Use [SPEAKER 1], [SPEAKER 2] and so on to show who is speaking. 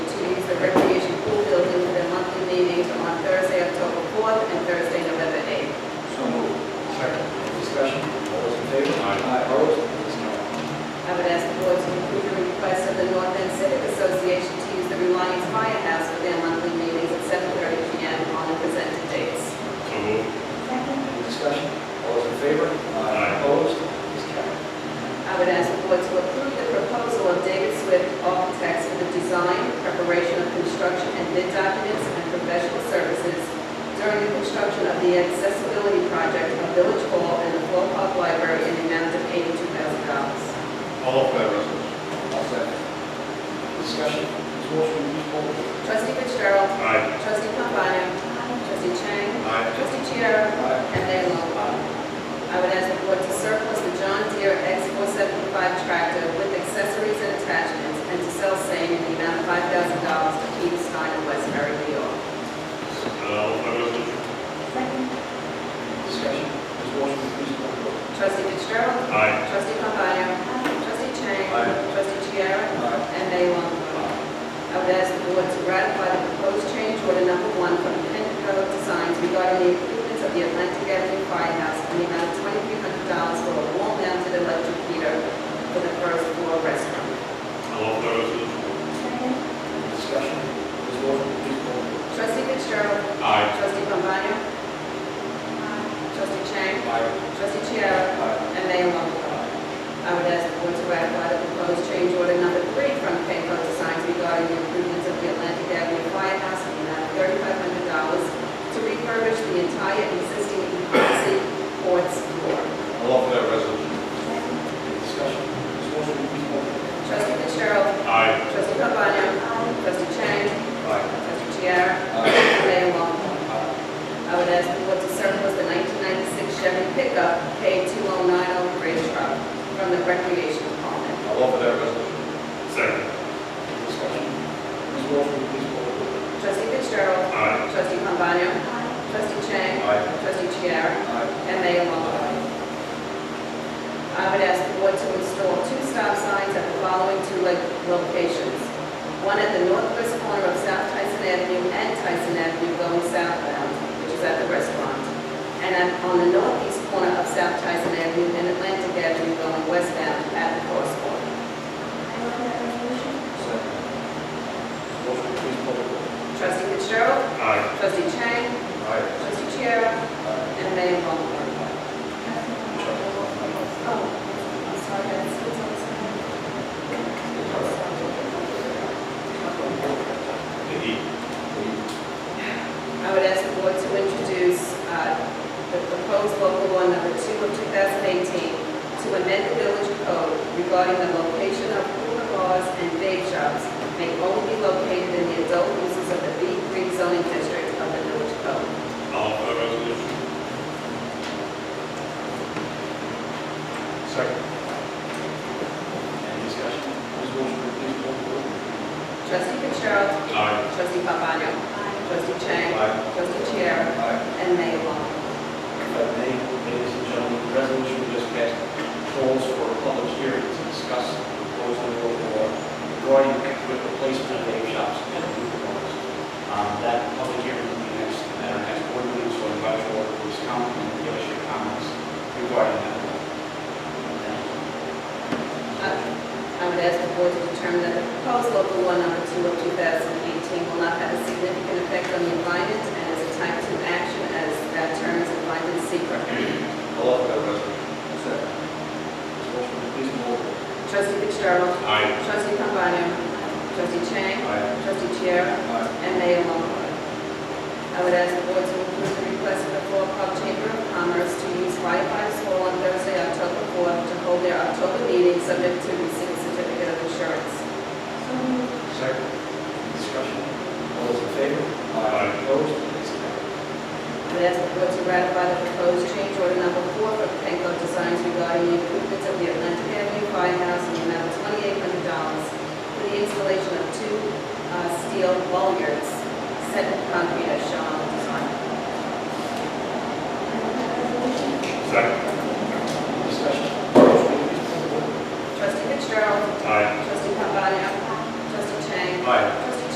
[SPEAKER 1] construction and bid documents and professional services during the construction of the accessibility project of Village Hall and the Flow Park Library in the amount of eighty-two thousand dollars.
[SPEAKER 2] I'll offer that resolution.
[SPEAKER 3] I'll second. Discussion. Ms. Walsh, will you please poll the board?
[SPEAKER 1] Trustee Fitzgerald.
[SPEAKER 2] Aye.
[SPEAKER 1] Trustee Pombana. Trustee Chang.
[SPEAKER 2] Aye.
[SPEAKER 1] Trustee Chiara.
[SPEAKER 3] Aye.
[SPEAKER 1] And Mayor Longfellow. I would ask the board to surplus the John Deere X475 tractor with accessories and attachments and to sell same in the amount of $5,000 to Peter Stein of Westbury, New York.
[SPEAKER 2] I'll offer that resolution.
[SPEAKER 3] Discussion. Ms. Walsh, will you please poll the board?
[SPEAKER 1] Trustee Fitzgerald.
[SPEAKER 2] Aye.
[SPEAKER 1] Trustee Pombana. Trustee Chang.
[SPEAKER 3] Aye.
[SPEAKER 1] Trustee Chiara.
[SPEAKER 3] Aye.
[SPEAKER 1] And Mayor Longfellow. I would ask the board to ratify the proposed change order number one from Pinco Designs regarding the improvements of the Atlantic Avenue Firehouse in the amount of twenty-three hundred dollars for a wall-mounted electric heater for the first floor restroom.
[SPEAKER 2] I'll offer that resolution.
[SPEAKER 3] Discussion. Ms. Walsh, will you please poll the board?
[SPEAKER 1] Trustee Fitzgerald.
[SPEAKER 2] Aye.
[SPEAKER 1] Trustee Pombana. Trustee Chang.
[SPEAKER 3] Aye.
[SPEAKER 1] Trustee Chiara.
[SPEAKER 3] Aye.
[SPEAKER 1] And Mayor Longfellow. I would ask the board to ratify the proposed change order number three from Penco Designs regarding the improvements of the Atlantic Avenue Firehouse in the amount of thirty-five hundred dollars to refurbish the entire existing emergency courts floor.
[SPEAKER 2] I'll offer that resolution.
[SPEAKER 3] Discussion. Ms. Walsh, will you please poll the board?
[SPEAKER 1] Trustee Fitzgerald.
[SPEAKER 2] Aye.
[SPEAKER 1] Trustee Pabana. Trustee Chang. Trustee Chiara.
[SPEAKER 3] Aye.
[SPEAKER 1] Mayor Longfellow.
[SPEAKER 3] Aye.
[SPEAKER 1] I would ask the board to surplus the nineteen ninety-six Chevy pickup K two oh nine oh gray truck from the Recreation Department.
[SPEAKER 2] I'll offer that resolution. Second.
[SPEAKER 3] Discussion. Ms. Walsh, will you please poll the board?
[SPEAKER 1] Trustee Fitzgerald.
[SPEAKER 2] Aye.
[SPEAKER 1] Trustee Pombana. Trustee Chang.
[SPEAKER 3] Aye.
[SPEAKER 1] Trustee Chiara.
[SPEAKER 3] Aye.
[SPEAKER 1] And Mayor Longfellow. I would ask the board to install two stop signs at the following two lo- locations. One at the northwest corner of South Tyson Avenue and Tyson Avenue going southbound, which is at the restaurant. And at- on the northeast corner of South Tyson Avenue and Atlantic Avenue going westbound at the crosswalk.
[SPEAKER 3] Second. Ms. Walsh, will you please poll the board?
[SPEAKER 1] Trustee Fitzgerald.
[SPEAKER 2] Aye.
[SPEAKER 1] Trustee Chang.
[SPEAKER 3] Aye.
[SPEAKER 1] Trustee Chiara.
[SPEAKER 3] Aye.
[SPEAKER 1] And Mayor Longfellow.
[SPEAKER 2] Eight.
[SPEAKER 1] I would ask the board to introduce uh, the proposed local law number two of 2018 to amend the village code regarding the location of cooler bars and vape shops may only be located in the adult uses of the B3 zoning district of the village code.
[SPEAKER 2] I'll offer that resolution. Second.
[SPEAKER 3] Any discussion? Ms. Walsh, will you please poll the board?
[SPEAKER 1] Trustee Fitzgerald.
[SPEAKER 2] Aye.
[SPEAKER 1] Trustee Pabana. Trustee Chang.
[SPEAKER 3] Aye.
[SPEAKER 1] Trustee Chiara.
[SPEAKER 3] Aye.
[SPEAKER 1] And Mayor Longfellow.
[SPEAKER 3] If I may, ladies and gentlemen, the resolution we just passed calls for a public hearing to discuss the proposed new local law regarding the replacement of vape shops and food bars. Um, That public hearing will be next, at our next board meeting, so I invite you all to please come and give us your comments regarding that. law. Thank you.
[SPEAKER 1] I would ask the board to determine that the proposed local law number two of 2018 will not have a significant effect on the environment and is a type two action as that term is defined in secret.
[SPEAKER 2] I'll offer that resolution.
[SPEAKER 3] Second. Ms. Walsh, will you please poll the board?
[SPEAKER 1] Trustee Fitzgerald.
[SPEAKER 2] Aye.
[SPEAKER 1] Trustee Pombana. Trustee Chang.
[SPEAKER 3] Aye.
[SPEAKER 1] Trustee Chiara.
[SPEAKER 3] Aye.
[SPEAKER 1] And Mayor Longfellow. I would ask the board to approve the request of the Fall Park Chamber of Commerce to use Firefighters Hall on Thursday, October 4th, to hold their October meeting subject to receipt of certificate of insurance.
[SPEAKER 3] Second. Discussion. All those in favor?
[SPEAKER 2] Aye.
[SPEAKER 3] Opposed? Ayes have it.
[SPEAKER 1] I would ask the board to ratify the proposed change order number four for Penco Designs regarding the improvements of the Atlantic Avenue Firehouse in the amount of twenty-eight hundred dollars for the installation of two uh, steel bollards set in concrete as shown on the design.
[SPEAKER 2] Second.
[SPEAKER 3] Discussion. Motion, please, poll the board.
[SPEAKER 1] Trustee Fitzgerald.
[SPEAKER 2] Aye.
[SPEAKER 1] Trustee Pambana. Trustee Chang.
[SPEAKER 2] Aye.